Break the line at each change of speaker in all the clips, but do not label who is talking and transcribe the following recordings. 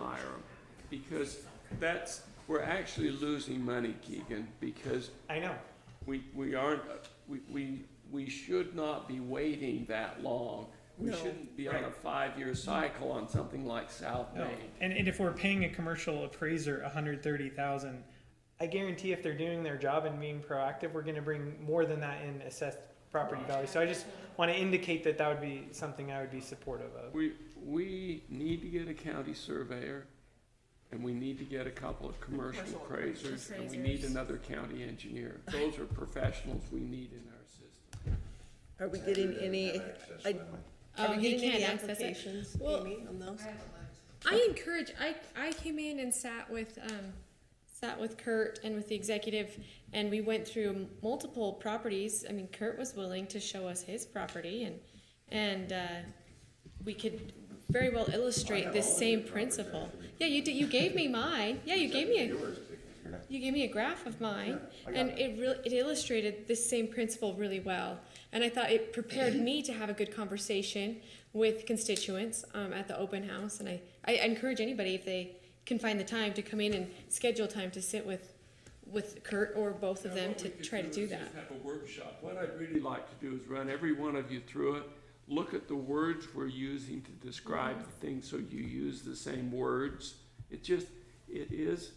Myram, because that's, we're actually losing money, Keegan, because
I know.
we, we aren't, we, we, we should not be waiting that long. We
No.
shouldn't be on a
Right.
five-year cycle on something like South
No.
Main.
And, and if we're paying a commercial appraiser 130,000, I guarantee if they're doing their job and being proactive, we're going to bring more than that in assessed property value. So I just want to indicate that that would be something I would be supportive of.
We, we need to get a county surveyor, and we need to get a couple of commercial
Commercial
appraisers, and we need
appraisers.
another county engineer. Those are professionals we need in our system.
Are we getting any, I-
Oh,
are we
he
getting any
can't access it.
applications,
Well-
Amy, on those?
I encourage. I I came in and sat with um, sat with Kurt and with the executive, and we went through multiple properties. I mean, Kurt was willing to show us his property, and and uh, we could very well illustrate this same principle. Yeah, you did. You gave me mine. Yeah, you gave me a. You gave me a graph of mine, and it really it illustrated this same principle really well. And I thought it prepared me to have a good conversation with constituents um, at the open house. And I, I encourage anybody if they can find the time to come in and schedule time to sit with with Kurt or both of
Now,
them
what
to
we could
try to
is
do
just
that.
Have a workshop. What I'd really like to do is run every one of you through it, look at the words we're using to describe the thing, so you use the same words. It just, it is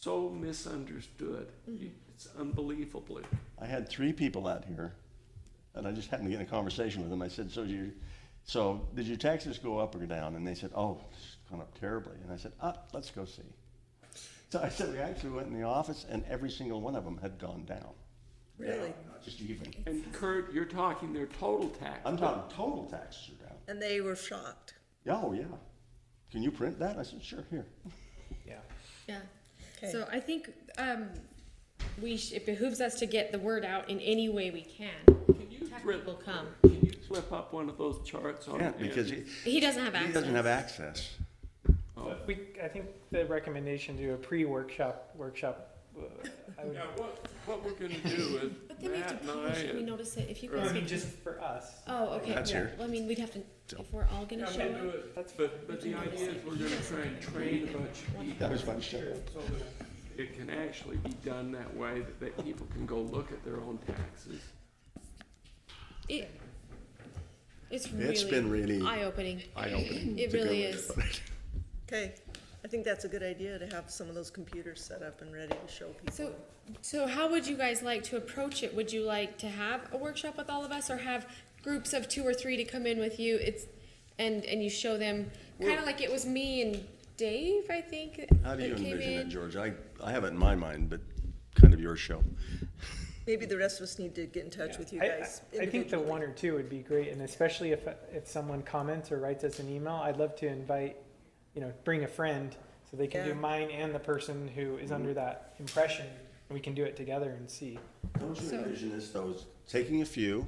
so misunderstood.
Mm-hmm.
You- It's unbelievably.
I had three people out here, and I just happened to get in a conversation with them. I said, "So did you, so did your taxes go up or down?" And they said, "Oh, it's gone up terribly." And I said, "Ah, let's go see." So I said, "We actually went in the office, and every single one of them had gone down.
Really?
Down, Just even.
And Kurt, you're talking their total tax.
I'm talking total taxes are down.
And they were shocked.
Yeah, oh yeah. Can you print that?" I said, "Sure, here."
Yeah.
Yeah.
Okay.
So I think um, we sh- it behooves us to get the word out in any way we can.
Can you flip,
People come.
can you flip up one of those charts on?
Yeah, because he,
Andy?
He doesn't have access.
he doesn't have access.
Oh.
We, I think the recommendation to do a pre-workshop workshop. uh, I would,
Yeah, what, what we're gonna do
But
is
then we have to
Matt and I
publish it. We
and
notice it if you
I
guys.
mean,
get-
just for us.
Oh, okay.
That's
yeah.
here.
Well, I mean, we'd have to, if we're all gonna show
Yeah, we'll
up.
do it. But, but the idea is we're gonna try and train a bunch of people
That was my show.
so that it can actually be done that way, that, that people can go look at their own taxes.
It, it's really
It's been really
eye-opening.
eye-opening.
It
to go
really
in.
is.
Okay, I think that's a good idea to have some of those computers set up and ready to show people.
So, so how would you guys like to approach it? Would you like to have a workshop with all of us, or have groups of two or three to come in with you? It's and and you show them kind of like it was me and Dave, I think.
How do
that
you
came
envision it,
in.
George? I, I have it in my mind, but kind of your show.
Maybe the rest of us need to get in touch with you
I-
guys.
I, I think the
individually.
one or two would be great, and especially if, if someone comments or writes us an email, I'd love to invite, you know, bring a friend, so they can
Yeah.
do mine and the person who is under that impression, and we can do it together and see.
Don't you
So-
envision this though, as taking a few,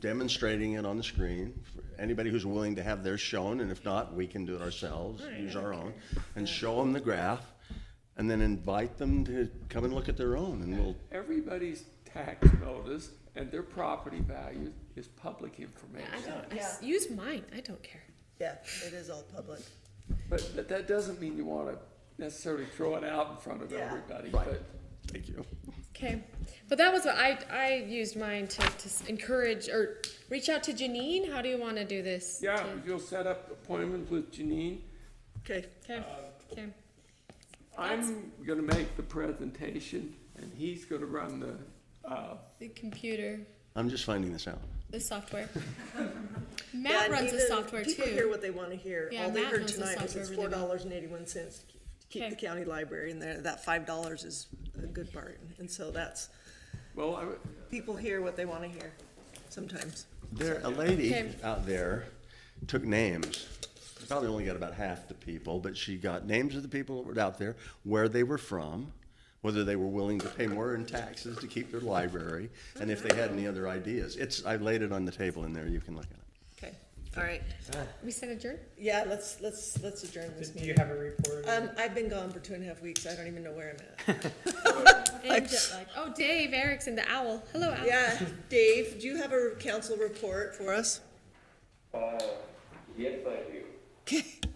demonstrating it on the screen, for anybody who's willing to have theirs shown, and if not, we can do it ourselves, use our own, and show them the graph, and then invite them to come and look at their own, and we'll,
Everybody's tax notice and their property value is public
I
information.
don't, I s- use mine. I don't care.
Yeah, it is all public.
But, but that doesn't mean you wanna necessarily throw it out in front of
Yeah.
everybody,
Right.
but
thank you.
Okay, but that was what I I used mine to, to s- encourage or reach out to Janine. How do you want to do this?
yeah, you'll set up appointments with Janine.
Okay,
Okay. Okay.
I'm gonna make the presentation and he's gonna run the, uh,
The computer,
I'm just finding this out.
the software.
Yeah,
Matt
and
runs the
even
software
People hear
too.
what they want to hear.
Yeah,
All they
Matt
heard
knows the
tonight was
software
it's
really
four
well.
dollars and eighty-one cents to keep- to keep the
Okay.
county library in there. That five dollars is a good part. And so that's,
well, I,
people hear what they want to hear sometimes.
There, a lady
Okay.
out there took names. Probably only got about half the people, but she got names of the people that were out there, where they were from, whether they were willing to pay more in taxes to keep their library, and if they had any other ideas. It's, I laid it on the table in there, you can look at it.
Okay, all right.
We sent a jerk.
Yeah, let's, let's, let's adjourn this
Do you have a report?
Um, I've been gone for two and a half weeks. I don't even know where I'm at.
And jet lag. Oh, Dave Erickson, the owl. Hello, owl.
Yeah, Dave, do you have a council report for us?
Uh, yes, I do.
Okay.